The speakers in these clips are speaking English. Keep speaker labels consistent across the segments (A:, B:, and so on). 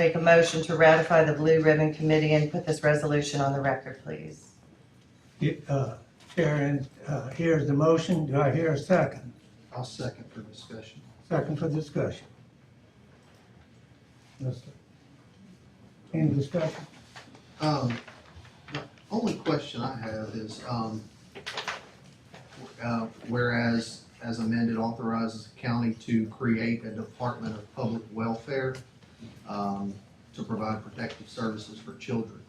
A: Make a motion to ratify the Blue Ribbon Committee and put this resolution on the record, please.
B: Uh, Sharon, uh, here's the motion. Do I hear a second?
C: I'll second for discussion.
B: Second for discussion. Yes, sir. Any discussion?
C: Um, the only question I have is, um, uh, whereas as amended authorizes the county to create a Department of Public Welfare, um, to provide protective services for children.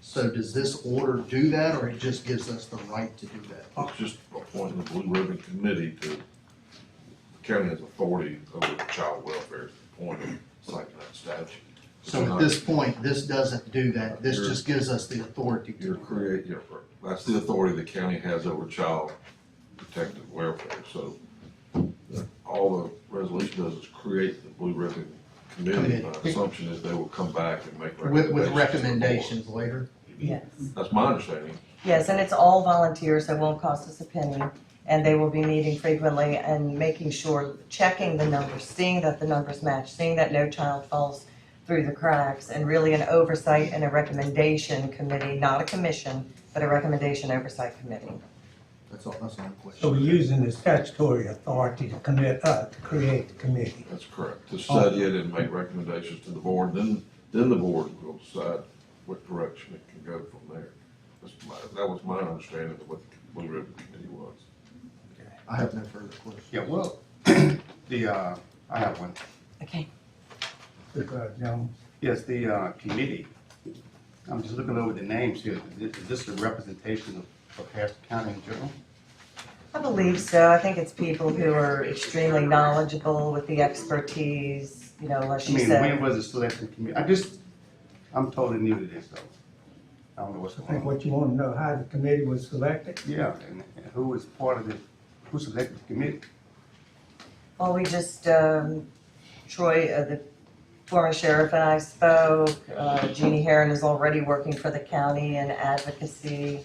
C: So does this order do that, or it just gives us the right to do that?
D: It's just appointing the Blue Ribbon Committee to, the county has authority over child welfare, appointing, it's like that statute.
C: So at this point, this doesn't do that, this just gives us the authority to.
D: You're create, you're, that's the authority the county has over child protective welfare, so the- all the resolution does is create the Blue Ribbon Committee. My
C: Committee.
D: assumption is they will come back and make
C: With,
D: recommendations.
C: with
D: to
C: recommendations later?
D: the
A: Yes.
D: board. That's my understanding.
A: Yes, and it's all volunteers, so it won't cost us a penny. And they will be meeting frequently and making sure, checking the numbers, seeing that the numbers match, seeing that no child falls through the cracks, and really an oversight and a recommendation committee, not a commission, but a recommendation oversight committee.
C: That's all, that's all my
B: So we're
C: question.
B: using the statutory authority to commit, uh, to create the committee.
D: That's correct, to study it and make recommendations to the board, then, then the board will decide what direction it can go from there. That's my, that was my understanding of what the Blue Ribbon Committee was.
C: I have no further questions.
E: Yeah, well, the, uh, I have one.
A: Okay.
B: Supervisor Jones,
E: Yes, the, uh, committee, I'm just looking over the names here. Is this a representation of, of Harrison County in general?
A: I believe so. I think it's people who are extremely knowledgeable with the expertise, you know, like
E: I
A: she
E: mean, when
A: said.
E: was the selection committee? I just, I'm totally new to this though. I don't know what's
B: I think
E: going on.
B: what you want to know, how the committee was selected?
E: Yeah, and and who was part of the, who selected the committee?
A: Well, we just, um, Troy, uh, the former sheriff and I spoke. Uh, Jeannie Heron is already working for the county in advocacy.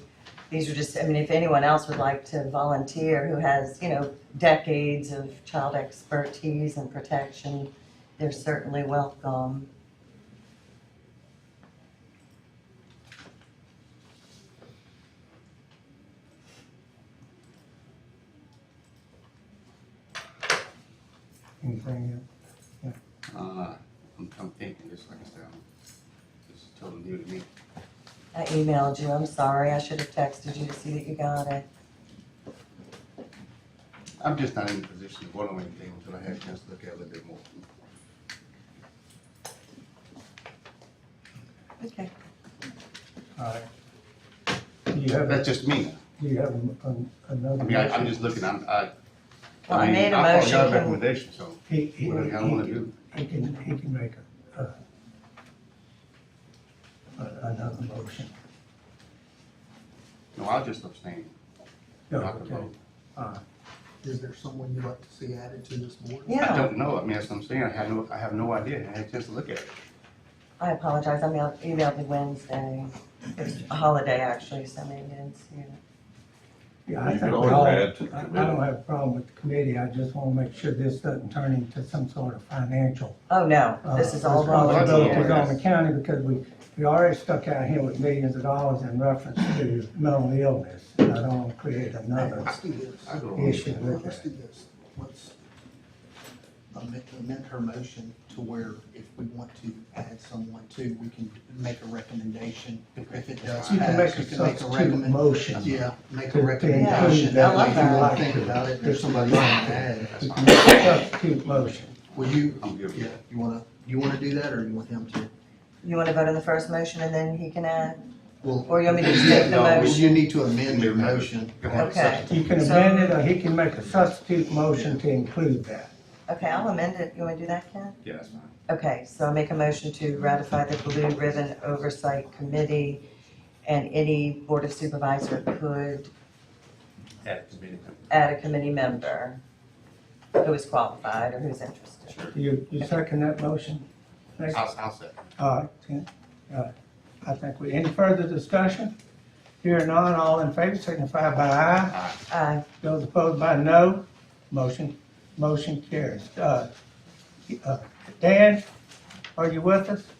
A: These are just, I mean, if anyone else would like to volunteer who has, you know, decades of child expertise and protection, they're certainly welcome.
B: Anything else?
E: Uh, I'm, I'm thinking, just like I said, I'm- this is totally new to me.
A: I emailed you, I'm sorry, I should have texted you to see that you got it.
E: I'm just not in a position to vote on anything until I have a chance to look at it a little bit more.
A: Okay.
B: All right. Do you have,
E: That's just me.
B: do you have an- an- another?
E: I mean, I, I'm
B: motion?
E: just looking, I'm, I.
A: Well, Oh, I made a
E: I follow y'all's
A: motion.
E: recommendation, so.
B: He, he,
E: What I kinda wanna do.
B: he he can, he can make a, uh, a- another motion.
E: No, I'll just abstain.
B: No,
E: Not to vote.
B: Uh,
C: Is there someone you'd like to see added to this board?
E: I
A: Yeah,
E: don't know, I mean, that's what I'm saying, I have no, I have no idea, I had a chance to look at it.
A: I apologize, I mailed- emailed you Wednesday. It's a holiday, actually, so maybe I didn't see it.
B: Yeah, I
D: You
B: think
D: could
B: we
D: always
B: all, I
D: add to the
B: I
D: committee.
B: don't have a problem with the committee, I just wanna make sure this doesn't turn into some sort of financial.
A: Oh, no,
B: uh,
A: this is all
E: responsibility.
A: volunteer.
B: responsibilities on the county, because we, we already stuck out here with millions of dollars in reference to mental illness. And I don't wanna create another,
C: Let's do this.
E: I go along with
B: Yes, you
E: that.
B: would.
C: Let's do this. Let's amend, amend her motion to where if we want to add someone to, we can make a recommendation. If it does
B: you can make
C: pass,
B: a
C: you can make a
B: substitute
C: recommendation.
B: motion.
C: Yeah, make
B: To-
C: a
B: to
C: recommendation.
B: include that
A: I love
C: If you
A: that.
C: wanna Think about it, there's somebody you want to add.
B: You can make a substitute motion.
C: Will you,
E: I'm good with
C: yeah,
E: that.
C: you wanna, you wanna do that or you want him to?
A: You wanna vote on the first motion and then he can add?
C: Well,
A: Or you want me to just make the
E: No, we-
A: motion?
C: You need to amend your motion.
E: Go ahead,
A: Okay.
E: substitute.
B: You can amend it, or he can make a substitute motion to include that.
A: Okay, I'll amend it. You wanna do that, Ken?
E: Yeah, that's fine.
A: Okay, so I make a motion to ratify the Blue Ribbon Oversight Committee and any Board of Supervisor could
E: Add to committee member.
A: add a committee member who is qualified or who's interested.
B: You, you second that motion? Next.
E: I'll, I'll second.
B: All right, Ken. All right. I think we, any further discussion? Here none, all in favor, signify by aye.
A: Aye.
B: Those opposed by no. Motion, motion carries. Uh, uh, Dan, are you with us?